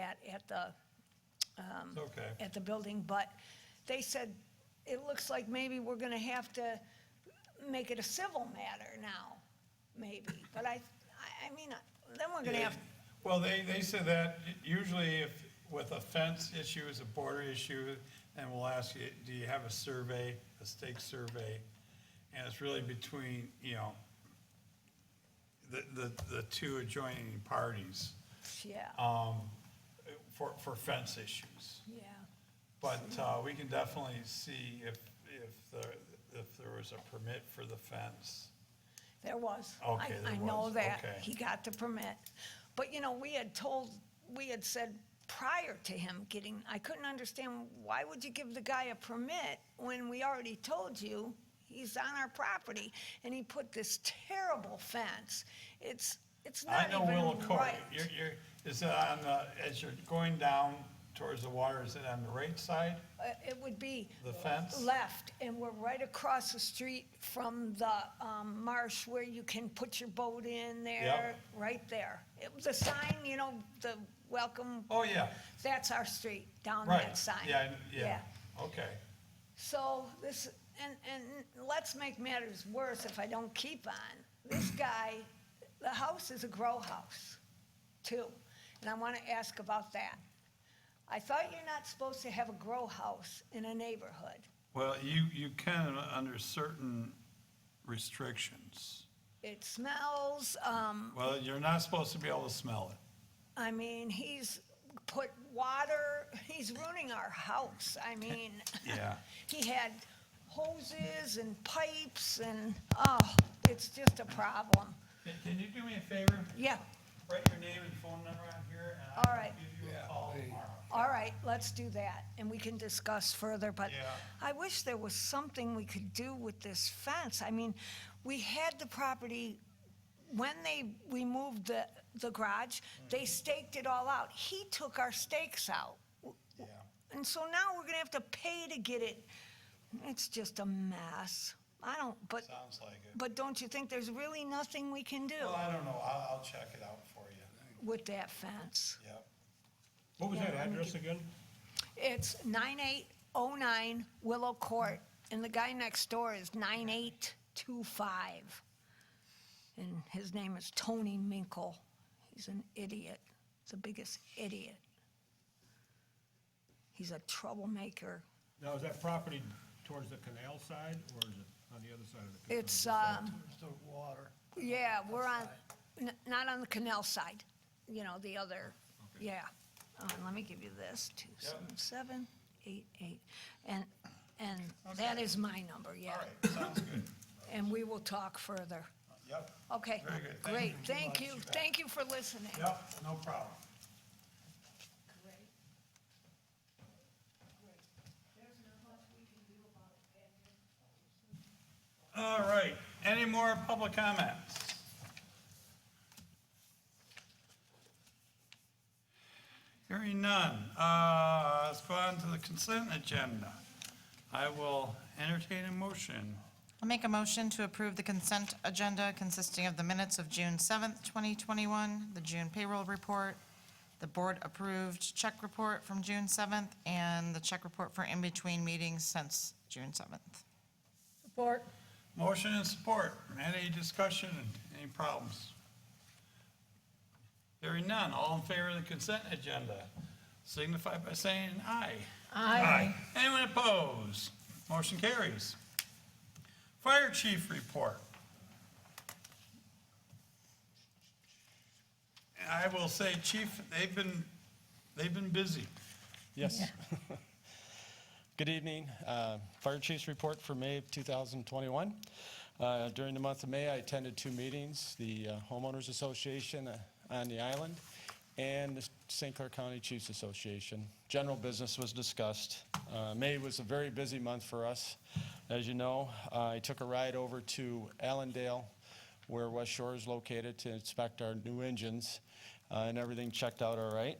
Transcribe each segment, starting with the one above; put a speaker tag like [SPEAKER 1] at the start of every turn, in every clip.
[SPEAKER 1] at the,
[SPEAKER 2] It's okay.
[SPEAKER 1] at the building, but they said, it looks like maybe we're gonna have to make it a civil matter now, maybe. But I, I, I mean, then we're gonna have,
[SPEAKER 2] Well, they, they said that usually if, with a fence issue, it's a border issue, and we'll ask you, do you have a survey, a stake survey? And it's really between, you know, the, the, the two adjoining parties,
[SPEAKER 1] yeah,
[SPEAKER 2] um, for, for fence issues.
[SPEAKER 1] yeah.
[SPEAKER 2] But, uh, we can definitely see if, if there, if there was a permit for the fence.
[SPEAKER 1] There was. I-
[SPEAKER 2] Okay, there
[SPEAKER 1] I know
[SPEAKER 2] was,
[SPEAKER 1] that.
[SPEAKER 2] okay.
[SPEAKER 1] He got the permit. But, you know, we had told, we had said prior to him getting, I couldn't understand, why would you give the guy a permit when we already told you he's on our property? And he put this terrible fence. It's, it's
[SPEAKER 2] I
[SPEAKER 1] not
[SPEAKER 2] know Willow
[SPEAKER 1] even
[SPEAKER 2] Court,
[SPEAKER 1] right.
[SPEAKER 2] you're, you're, is it on the, as you're going down towards the water, is it on the right side,
[SPEAKER 1] Uh, It would be
[SPEAKER 2] the fence?
[SPEAKER 1] left, and we're right across the street from the um, marsh where you can put your boat in there, right there. It was a sign, you know, the welcome,
[SPEAKER 2] Oh, yeah,
[SPEAKER 1] that's our street, down
[SPEAKER 2] right,
[SPEAKER 1] that sign.
[SPEAKER 2] yeah, I- yeah, okay.
[SPEAKER 1] So this, and, and let's make matters worse if I don't keep on. This guy, the house is a grow house, too, and I want to ask about that. I thought you're not supposed to have a grow house in a neighborhood.
[SPEAKER 2] Well, you, you can under certain restrictions.
[SPEAKER 1] It smells, um,
[SPEAKER 2] Well, you're not supposed to be able to smell it.
[SPEAKER 1] I mean, he's put water, he's ruining our house. I mean,
[SPEAKER 2] Yeah.
[SPEAKER 1] he had hoses and pipes and, oh, it's just a problem.
[SPEAKER 2] Can you do me a favor?
[SPEAKER 1] Yeah,
[SPEAKER 2] Write your name and phone number on here,
[SPEAKER 1] I'll All right.
[SPEAKER 2] give you a call tomorrow.
[SPEAKER 1] all right, let's do that and we can discuss further, but
[SPEAKER 2] Yeah.
[SPEAKER 1] I wish there was something we could do with this fence. I mean, we had the property, when they removed the, the garage,
[SPEAKER 2] Mm-hmm.
[SPEAKER 1] they staked it all out. He took our stakes out.
[SPEAKER 2] Yeah.
[SPEAKER 1] And so now we're gonna have to pay to get it. It's just a mess. I don't, but,
[SPEAKER 2] Sounds like it.
[SPEAKER 1] but don't you think there's really nothing we can do
[SPEAKER 2] Well, I don't know, I'll, I'll check it out for you,
[SPEAKER 1] with that fence?
[SPEAKER 2] yep.
[SPEAKER 3] What was
[SPEAKER 1] Yeah,
[SPEAKER 3] that
[SPEAKER 1] let me
[SPEAKER 3] address
[SPEAKER 1] get-
[SPEAKER 3] again?
[SPEAKER 1] It's nine eight oh nine Willow Court, and the guy next door is nine eight two five. And his name is Tony Minkle. He's an idiot, the biggest idiot. He's a troublemaker.
[SPEAKER 3] Now, is that property towards the canal side, or is it on the other side of the canal?
[SPEAKER 1] It's, um,
[SPEAKER 2] There's the water.
[SPEAKER 1] Yeah, we're on, n- not on the canal side, you know, the other, yeah. Uh, Let me give you this, two seven seven eight eight, and, and that is my number, yeah.
[SPEAKER 2] All right, sounds good.
[SPEAKER 1] And we will talk further.
[SPEAKER 2] Yep,
[SPEAKER 1] Okay,
[SPEAKER 2] Very good. Thank you
[SPEAKER 1] great,
[SPEAKER 2] very
[SPEAKER 1] thank
[SPEAKER 2] much.
[SPEAKER 1] you, thank you for listening.
[SPEAKER 2] yep, no problem. All right, any more public comments? Hearing none, uh, let's go on to the consent agenda. I will entertain a motion.
[SPEAKER 4] I'll make a motion to approve the consent agenda consisting of the minutes of June 7th, 2021, the June payroll report, the board-approved check report from June 7th, and the check report for in-between meetings since June 7th.
[SPEAKER 1] Support.
[SPEAKER 2] Motion and support. Any discussion, any problems? Hearing none, all in favor of the consent agenda, signify by saying aye. Aye. Anyone opposed? Motion carries. Fire chief report. And I will say, chief, they've been, they've been busy.
[SPEAKER 5] Yes. Good evening. Uh, Fire Chief's Report for May of 2021. Uh, During the month of May, I attended two meetings, the uh, homeowners association uh, on the island and the St. Clair County Chiefs Association. General business was discussed. Uh, May was a very busy month for us. As you know, uh, I took a ride over to Allendale where West Shore is located to inspect our new engines, uh, and everything checked out all right.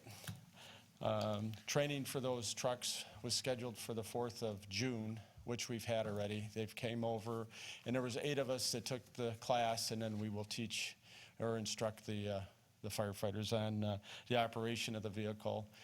[SPEAKER 5] Um, Training for those trucks was scheduled for the 4th of June, which we've had already. They've came over, and there was eight of us that took the class, and then we will teach or instruct the uh, the firefighters on uh, the operation of the vehicle